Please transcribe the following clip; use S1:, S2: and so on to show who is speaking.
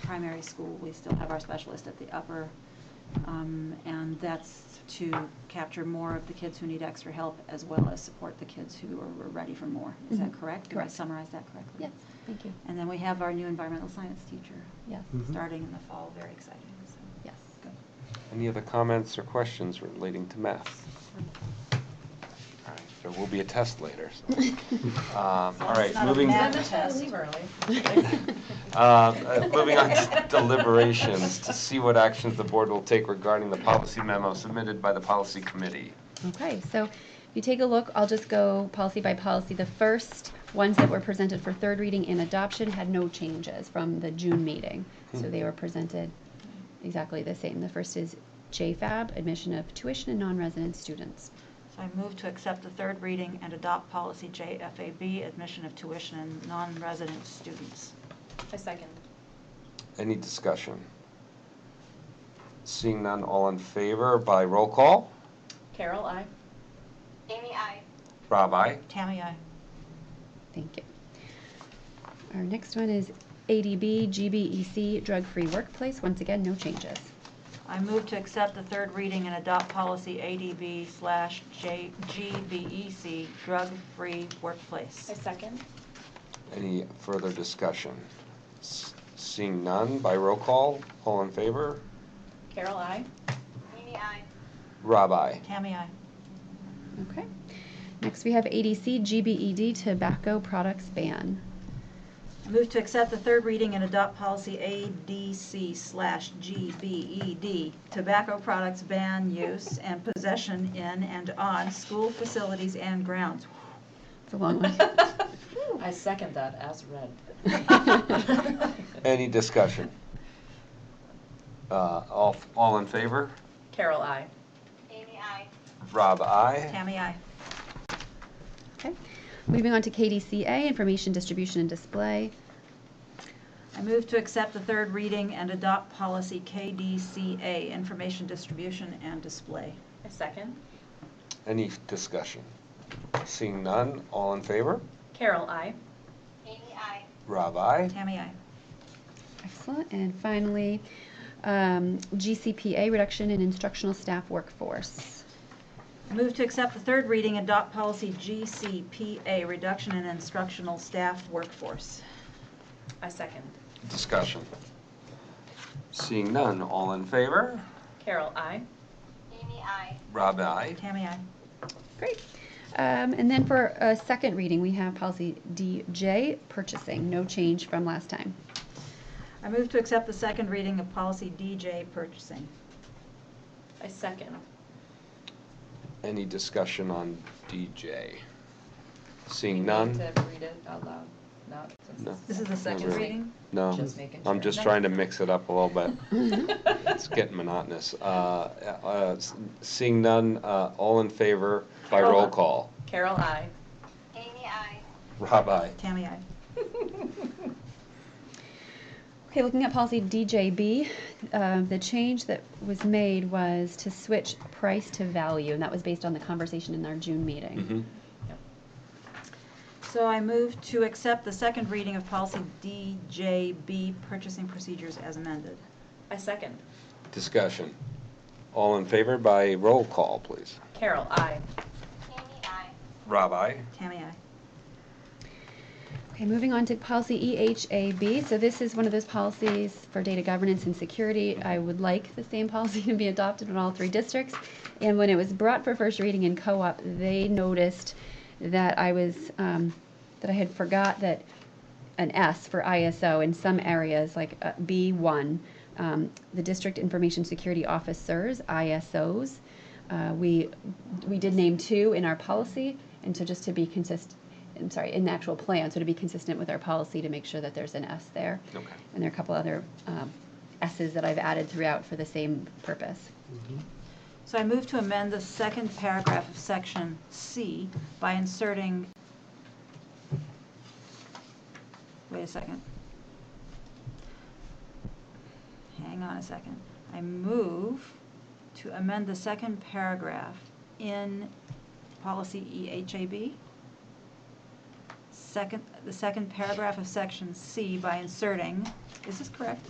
S1: primary school, we still have our specialist at the upper. um, And that's to capture more of the kids who need extra help as well as support the kids who are ready for more. Is that
S2: Mhm.
S1: correct? Do I
S2: Correct.
S1: summarize that correctly?
S2: Yes, thank you.
S1: And then we have our new environmental science teacher
S2: Yes,
S3: Mhm.
S1: starting in the fall, very exciting, so.
S2: yes.
S1: Good.
S4: Any other comments or questions relating to math? All right, There will be a test later, so. Um, All right, moving. Uh, uh, Moving on to deliberations, to see what actions the board will take regarding the policy memo submitted by the policy committee.
S2: Okay, so if you take a look, I'll just go policy by policy. The first ones that were presented for third reading and adoption had no changes from the June meeting. So they were presented exactly the same. The first is JFAB, admission of tuition and non-resident students.
S1: So I move to accept the third reading and adopt policy JFAB, admission of tuition and non-resident students.
S5: A second.
S4: Any discussion? Seeing none, all in favor by roll call?
S5: Carol, I.
S6: Jamie, I.
S4: Rob, aye.
S1: Tammy, I.
S2: Thank you. Our next one is ADB, GBEC, E drug-free workplace. Once again, no changes.
S1: I move to accept the third reading and adopt policy ADB slash J- GBEC, drug-free workplace.
S5: A second.
S4: Any further discussion? S- Seeing none, by roll call, all in favor?
S5: Carol, I.
S6: Jamie, I.
S4: Rob, aye.
S1: Tammy, I.
S2: Okay. Next, we have ADC, GBED, E tobacco products ban.
S1: I move to accept the third reading and adopt policy ADC slash GBED, tobacco products ban use and possession in and on school facilities and grounds.
S2: It's a long one.
S5: I second that as read.
S4: Any discussion? Uh, All, all in favor?
S5: Carol, I.
S6: Jamie, I.
S4: Rob, aye.
S1: Tammy, I.
S2: Okay. Moving on to KDCA, information distribution and display.
S1: I move to accept the third reading and adopt policy KDCA, information distribution and display.
S5: A second.
S4: Any discussion? Seeing none, all in favor?
S5: Carol, I.
S6: Jamie, I.
S4: Rob, aye.
S1: Tammy, I.
S2: Excellent. And finally, um, GCPA, reduction in instructional staff workforce.
S1: I move to accept the third reading and adopt policy GCPA, reduction in instructional staff workforce.
S5: A second.
S4: Discussion. Seeing none, all in favor?
S5: Carol, I.
S6: Jamie, I.
S4: Rob, aye.
S1: Tammy, I.
S2: Great. Um, and then for a second reading, we have policy DJ, purchasing, no change from last time.
S1: I move to accept the second reading of policy DJ, purchasing.
S5: A second.
S4: Any discussion on DJ?
S7: We
S4: Seeing
S7: need
S4: none?
S7: To read it out loud, not
S4: No.
S7: since
S1: This is the
S7: it's-
S1: second
S4: really.
S1: reading?
S4: No,
S7: Just making
S4: I'm
S7: sure.
S4: just trying to mix it up a little bit. It's getting monotonous. Uh, uh, s- Seeing none, uh, all in favor by
S1: Roll
S4: roll
S1: call.
S4: call?
S7: Carol, I.
S6: Jamie, I.
S4: Rob, aye.
S1: Tammy, I.
S2: Okay, looking at policy DJB, uh, the change that was made was to switch price to value, and that was based on the conversation in our June meeting.
S4: Mhm.
S1: So I move to accept the second reading of policy DJB, purchasing procedures as amended.
S5: A second.
S4: Discussion. All in favor by roll call, please.
S5: Carol, I.
S6: Jamie, I.
S4: Rob, aye.
S1: Tammy, I.
S2: Okay, moving on to policy E EHAB. So this is one of those policies for data governance and security. I would like the same policy to be adopted in all three districts. And when it was brought for first reading in co-op, they noticed that I was, um, that I had forgot that an S for ISO in some areas, like uh, B1, um, the District Information Security Officers, ISOs. Uh, we, we did name two in our policy, and so just to be consist, I'm sorry, in the actual plan, so to be consistent with our policy to make sure that there's an S there.
S4: Okay.
S2: And there are a couple other um, S's that I've added throughout for the same purpose.
S1: So I move to amend the second paragraph of section C by inserting, wait a second. Hang on a second. I move to amend the second paragraph in policy E EHAB. Second, the second paragraph of section C by inserting, is this correct?